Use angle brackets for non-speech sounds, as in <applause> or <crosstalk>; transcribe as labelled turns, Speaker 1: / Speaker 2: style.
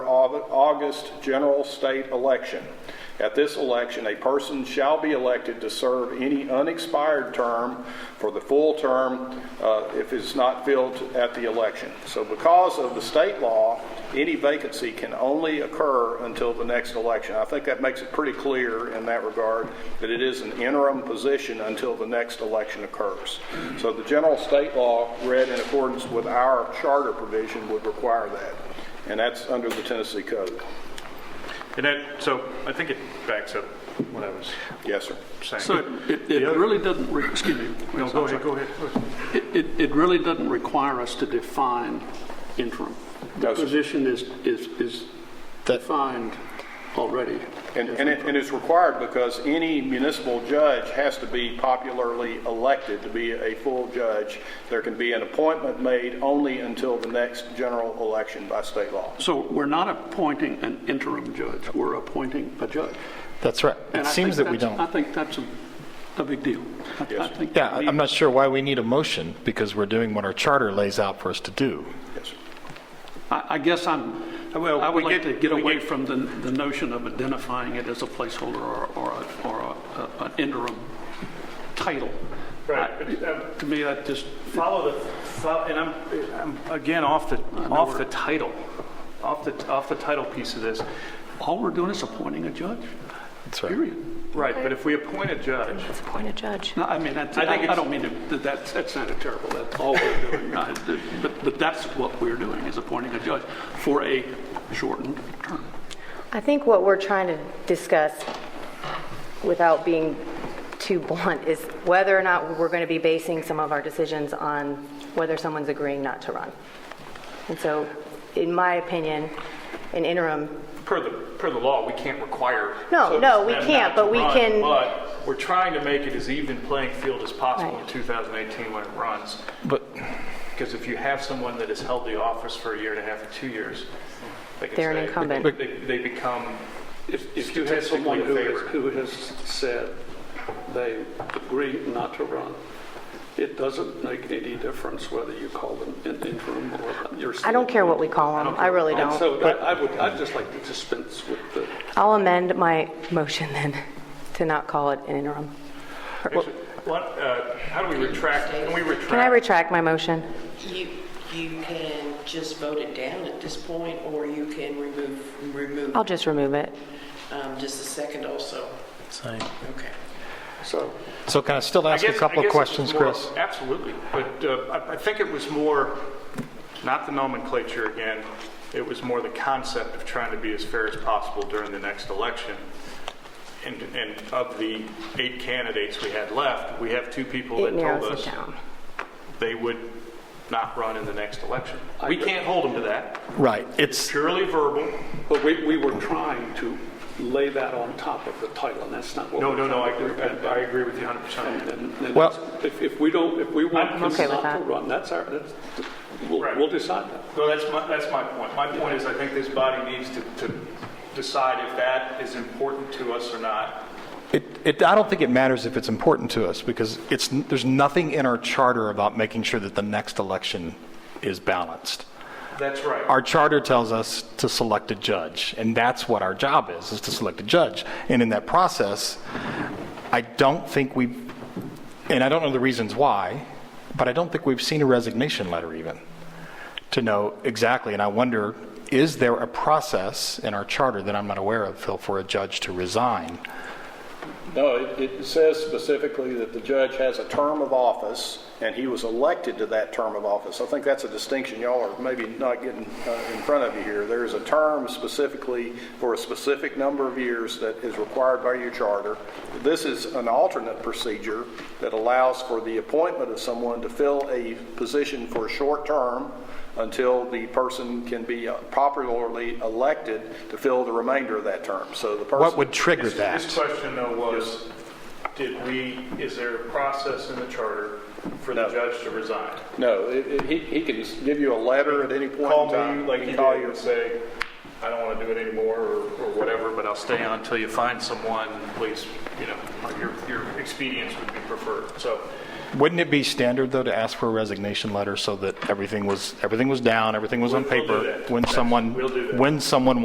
Speaker 1: Au- August general state election. At this election, a person shall be elected to serve any unexpired term for the full term uh, if it's not filled at the election. So because of the state law, any vacancy can only occur until the next election. I think that makes it pretty clear in that regard that it is an interim position until the next election occurs. So the general state law, read in accordance with our charter provision, would require that, and that's under the Tennessee Code.
Speaker 2: And that, so I think it backs up what I was
Speaker 1: Yes, sir.
Speaker 2: saying.
Speaker 3: So it, it
Speaker 2: The other-
Speaker 3: really doesn't, re- excuse me.
Speaker 2: No, go ahead, go ahead.
Speaker 3: It, it- it really doesn't require us to define interim. The
Speaker 1: No, sir.
Speaker 3: position is, is, is defined already.
Speaker 1: And, and it, and it's required because any municipal judge has to be popularly elected to be a full judge. There can be an appointment made only until the next general election by state law.
Speaker 3: So we're not appointing an interim judge, we're appointing a judge.
Speaker 4: That's right.
Speaker 3: And
Speaker 4: It
Speaker 3: I
Speaker 4: seems
Speaker 3: think
Speaker 4: that we
Speaker 3: that's- I
Speaker 4: don't.
Speaker 3: think that's a, a big deal. I- I
Speaker 1: sir.
Speaker 3: think
Speaker 4: Yeah,
Speaker 3: we-
Speaker 4: I- I'm not sure why we need a motion because we're doing what our charter lays out for us to do.
Speaker 1: Yes, sir.
Speaker 3: I, I guess I'm,
Speaker 2: Well,
Speaker 3: I would
Speaker 2: we
Speaker 3: like
Speaker 2: get-
Speaker 3: to get
Speaker 2: we
Speaker 3: away
Speaker 2: get-
Speaker 3: from the, the notion of identifying it as a placeholder or, or, a- or a- a- an interim title.
Speaker 5: Right,
Speaker 3: I-
Speaker 5: but, um,
Speaker 3: To me, that just,
Speaker 5: Follow the, fo- and I'm, I'm again off the, off the title, off the, off the title piece of this.
Speaker 3: all we're doing is appointing a judge,
Speaker 4: That's right.
Speaker 3: period.
Speaker 2: Right, but if we appoint a judge,
Speaker 6: Appoint a judge.
Speaker 3: No, I mean, that's-
Speaker 2: I think
Speaker 3: I I
Speaker 2: it's-
Speaker 3: don't mean to, that- that's, that's not a terrible, that's all we're doing. <laughs> I- But, but that's what we're doing, is appointing a judge for a shortened term.
Speaker 6: I think what we're trying to discuss, without being too blunt, is whether or not we're going to be basing some of our decisions on whether someone's agreeing not to run. And so, in my opinion, an interim,
Speaker 2: per the, per the law, we can't require.
Speaker 6: No, no, we
Speaker 2: them
Speaker 6: can't,
Speaker 2: not to
Speaker 6: but we
Speaker 2: run,
Speaker 6: can-
Speaker 2: But we're trying to make it as even playing field as possible in
Speaker 6: Right.
Speaker 2: 2018 when it runs.
Speaker 4: But
Speaker 2: Because if you have someone that has held the office for a year and a half or two years, they can
Speaker 6: They're an
Speaker 2: stay.
Speaker 6: incumbent.
Speaker 2: They, they become
Speaker 3: If, if you have someone who has, who has said they agree not to run, it doesn't make any difference whether you call them an interim or you're.
Speaker 6: I don't care what we call them, I really
Speaker 3: And
Speaker 6: don't.
Speaker 3: so I I would, I'd just like to dispense with the,
Speaker 6: I'll amend my motion then, <laughs> to not call it an interim.
Speaker 2: What, uh, how do we retract, can we retract?
Speaker 6: Can I retract my motion?
Speaker 7: You, you can just vote it down at this point, or you can remove, remove,
Speaker 6: I'll just remove it.
Speaker 7: um, just a second also. Okay.
Speaker 3: so.
Speaker 4: so can I still
Speaker 2: I
Speaker 4: ask a
Speaker 2: guess- I
Speaker 4: couple
Speaker 2: guess
Speaker 4: of
Speaker 2: it
Speaker 4: questions,
Speaker 2: was more-
Speaker 4: Chris?
Speaker 2: Absolutely, but uh, I- I think it was more, not the nomenclature again, it was more the concept of trying to be as fair as possible during the next election. And, and of the eight candidates we had left, we have two people
Speaker 6: It
Speaker 2: that told
Speaker 6: narrows
Speaker 2: us
Speaker 6: it down.
Speaker 2: they would not run in the next election. We can't hold them to that,
Speaker 4: Right. It's
Speaker 2: purely verbal.
Speaker 3: But we, we were trying to lay that on top of the title, and that's not what.
Speaker 2: No,
Speaker 3: we're
Speaker 2: no, no, I
Speaker 3: trying to
Speaker 2: agree,
Speaker 3: do.
Speaker 2: I I agree with you 100%.
Speaker 3: And- and- and
Speaker 4: Well-
Speaker 3: that's- If, if we don't, if we want
Speaker 2: I'm
Speaker 3: him not
Speaker 6: okay with
Speaker 3: to
Speaker 6: that.
Speaker 3: run, that's our, that's, we'll,
Speaker 2: Right.
Speaker 3: we'll decide that.
Speaker 2: No, that's my, that's my point. My point is, I think this body needs to, to decide if that is important to us or not.
Speaker 4: it, it I don't think it matters if it's important to us because it's there's nothing in our charter about making sure that the next election is balanced.
Speaker 2: That's right.
Speaker 4: Our charter tells us to select a judge, and that's what our job is, is to select a judge. And in that process, I don't think we've, and I don't know the reasons why, but I don't think we've seen a resignation letter even to know exactly. And I wonder, is there a process in our charter that I'm not aware of, Phil, for a judge to resign?
Speaker 1: No, it, it says specifically that the judge has a term of office, and he was elected to that term of office. I think that's a distinction y'all are maybe not getting uh, in front of you here. There is a term specifically for a specific number of years that is required by your charter. This is an alternate procedure that allows for the appointment of someone to fill a position for a short term until the person can be uh, popularly elected to fill the remainder of that term. So the person.
Speaker 4: What would trigger
Speaker 2: His-
Speaker 4: that?
Speaker 2: His question though was, did we, is there a process in the charter for the
Speaker 1: No.
Speaker 2: judge to resign?
Speaker 1: No, it- it- he he can s- give you a letter at any point
Speaker 2: Call
Speaker 1: in time.
Speaker 2: me like you
Speaker 1: Call
Speaker 2: did
Speaker 1: you.
Speaker 2: and say, I don't want to do it anymore or, or whatever, but I'll stay on until you find someone, please, you know, your, your expedience would be preferred. So
Speaker 4: Wouldn't it be standard, though, to ask for a resignation letter so that everything was, everything was down, everything was on
Speaker 2: We'll- we'll do
Speaker 4: paper?
Speaker 2: that.
Speaker 4: When someone,
Speaker 2: We'll do that.
Speaker 4: when someone